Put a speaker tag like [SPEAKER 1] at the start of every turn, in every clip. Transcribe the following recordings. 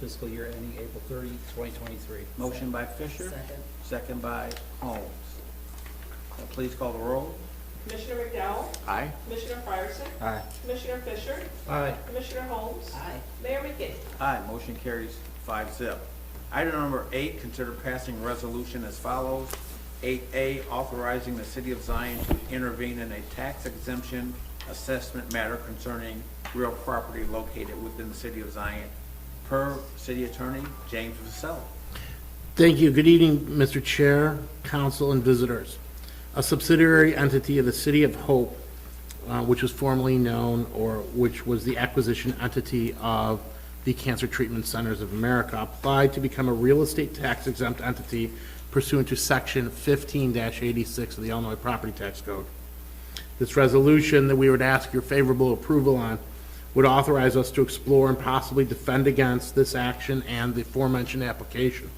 [SPEAKER 1] fiscal year ending April 30, 2023.
[SPEAKER 2] Motion by Fisher,
[SPEAKER 3] Second.
[SPEAKER 2] second by Holmes. Uh, Please call the roll.
[SPEAKER 4] Commissioner McDowell?
[SPEAKER 2] Aye.
[SPEAKER 4] Commissioner Fryerson?
[SPEAKER 2] Aye.
[SPEAKER 4] Commissioner Fisher?
[SPEAKER 1] Aye.
[SPEAKER 4] Commissioner Holmes?
[SPEAKER 3] Aye.
[SPEAKER 4] Mayor McKinney?
[SPEAKER 2] Aye, motion carries five zip. Item number eight, consider passing resolution as follows. Eight A, authorizing the city of Zion to intervene in a tax exemption assessment matter concerning real property located within the city of Zion, per city attorney James Vasselli.
[SPEAKER 5] Thank you. Good evening, Mr. Chair, council, and visitors. A subsidiary entity of the City of Hope, uh, which was formerly known, or which was the acquisition entity of the Cancer Treatment Centers of America, applied to become a real estate tax exempt entity pursuant to Section 15-86 of the Illinois Property Tax Code. This resolution that we would ask your favorable approval on would authorize us to explore and possibly defend against this action and the aforementioned application.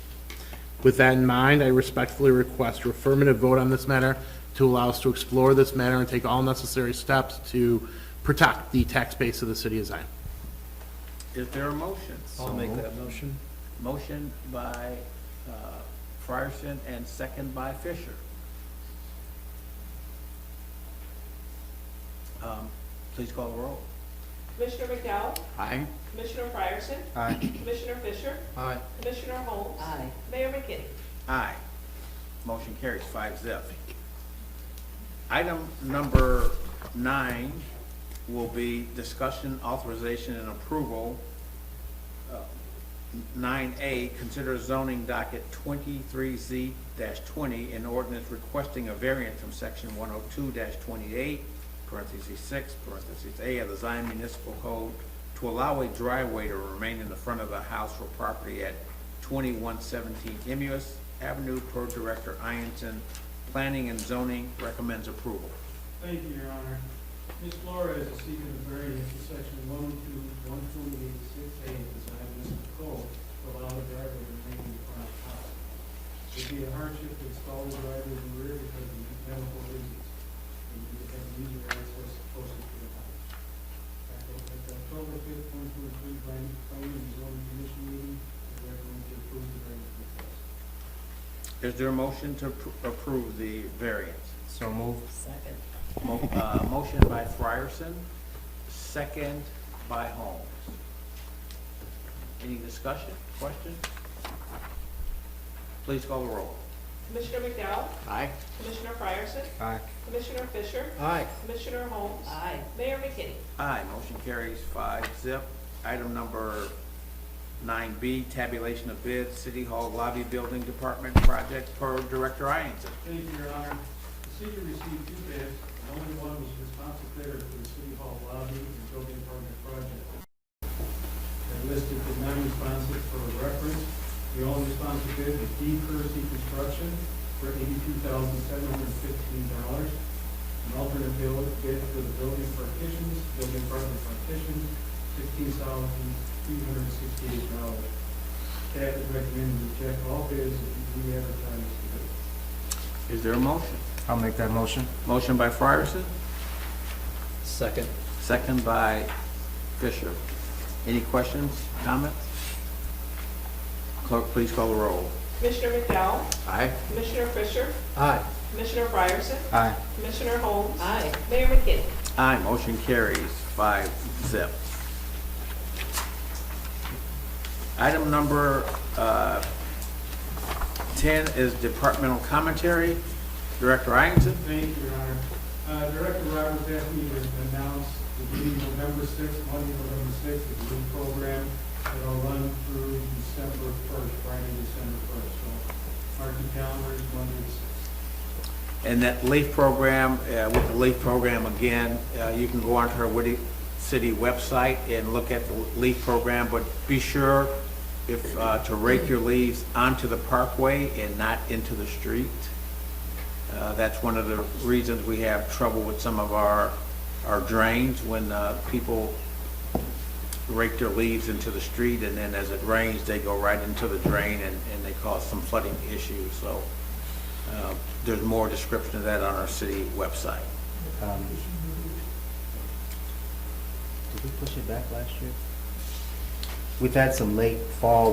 [SPEAKER 5] With that in mind, I respectfully request your affirmative vote on this matter to allow us to explore this matter and take all necessary steps to protect the tax base of the city of Zion.
[SPEAKER 2] Is there a motion?
[SPEAKER 1] I'll make that motion.
[SPEAKER 2] Motion by uh, Fryerson and second by Fisher. Um, Please call the roll.
[SPEAKER 4] Commissioner McDowell?
[SPEAKER 2] Aye.
[SPEAKER 4] Commissioner Fryerson?
[SPEAKER 2] Aye.
[SPEAKER 4] Commissioner Fisher?
[SPEAKER 1] Aye.
[SPEAKER 4] Commissioner Holmes?
[SPEAKER 3] Aye.
[SPEAKER 4] Mayor McKinney?
[SPEAKER 2] Aye. Motion carries five zip. Item number nine will be discussion, authorization, and approval. Nine A, consider zoning docket twenty-three Z twenty, an ordinance requesting a variance from section one oh two twenty-eight, parentheses six, parentheses A of the Zion Municipal Code to allow a driveway to remain in the front of the house or property at twenty-one seventeen Emus Avenue per Director Ianson. Planning and zoning recommends approval.
[SPEAKER 6] Thank you, Your Honor. Ms. Flores is seeking a variance in section one two, one two eight six A of the Zion Municipal Code to allow the driveway to remain in the front of the house. It'd be a hardship to install the driveway in the rear because of mechanical reasons. And you would have user access closer to the house. At the at the October fifth, one two three, planning, planning and zoning commission meeting, I recommend to approve the variance request.
[SPEAKER 2] Is there a motion to appro- approve the variance?
[SPEAKER 3] Second.
[SPEAKER 2] Mo- uh, Motion by Frierson, second by Holmes. Any discussion, questions? Please call the roll.
[SPEAKER 4] Commissioner McDowell?
[SPEAKER 2] Aye.
[SPEAKER 4] Commissioner Fryerson?
[SPEAKER 2] Aye.
[SPEAKER 4] Commissioner Fisher?
[SPEAKER 1] Aye.
[SPEAKER 4] Commissioner Holmes?
[SPEAKER 3] Aye.
[SPEAKER 4] Mayor McKinney?
[SPEAKER 2] Aye, motion carries five zip. Item number nine B, tabulation of bids, City Hall Lobby Building Department Project per Director Ianson.
[SPEAKER 6] Thank you, Your Honor. The city received two bids, and only one was responsive bidder for the city hall lobby and building permit project. They listed the non-responsive for reference. The only responsive bid was D. Kersey Construction for eighty-two thousand seven hundred fifteen dollars. An alternate bill- bid for the building partitions, building permit partitions, sixteen thousand three hundred sixty-eight dollars. Staff is recommending to reject all bids and re-advertise the bid.
[SPEAKER 2] Is there a motion?
[SPEAKER 7] I'll make that motion.
[SPEAKER 2] Motion by Frierson,
[SPEAKER 1] Second.
[SPEAKER 2] second by Fisher. Any questions, comments? Clerk, please call the roll.
[SPEAKER 4] Commissioner McDowell?
[SPEAKER 2] Aye.
[SPEAKER 4] Commissioner Fisher?
[SPEAKER 1] Aye.
[SPEAKER 4] Commissioner Fryerson?
[SPEAKER 7] Aye.
[SPEAKER 4] Commissioner Holmes?
[SPEAKER 3] Aye.
[SPEAKER 4] Mayor McKinney?
[SPEAKER 2] Aye, motion carries five zip. Item number uh, 10 is departmental commentary. Director Ianson?
[SPEAKER 6] Thank you, Your Honor. Uh, Director Roberts asked me to announce the meeting November sixth, Monday, November sixth, is a new program that'll run through December first, Friday, December first. So mark your calendars, Monday the sixth.
[SPEAKER 2] And that LEAF program, uh, with the LEAF program again, uh, you can go onto our Woody City website and look at the LEAF program, but be sure if, uh, to rake your leaves onto the parkway and not into the street. Uh, That's one of the reasons we have trouble with some of our, our drains, when uh, people rake their leaves into the street, and then as it rains, they go right into the drain, and, and they cause some flooding issues, so uh, there's more description of that on our city website.
[SPEAKER 7] Um, Did we push it back last year? We've had some late fall